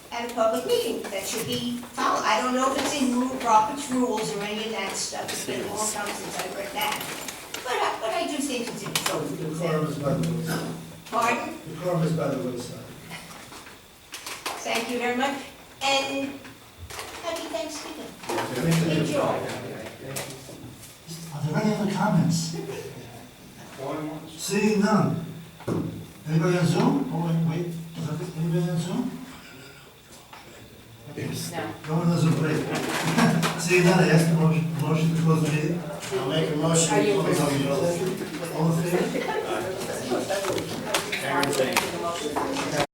at a public meeting, that should be followed. I don't know if it's in rule, Robert's rules or any of that stuff, it's been a long time since I read that. But, I- but I do think it's important to The examine. quorum is by the wayside. Pardon? The quorum is by the wayside. Thank you very much, and happy Thanksgiving. Enjoy. Are there any other comments? Seeing none. Anybody on Zoom? Oh, wait, wait, Is that- anybody on Zoom? No one on Zoom, great. Seeing none, I ask the motion, motion to close the meeting. Are you? All in favor?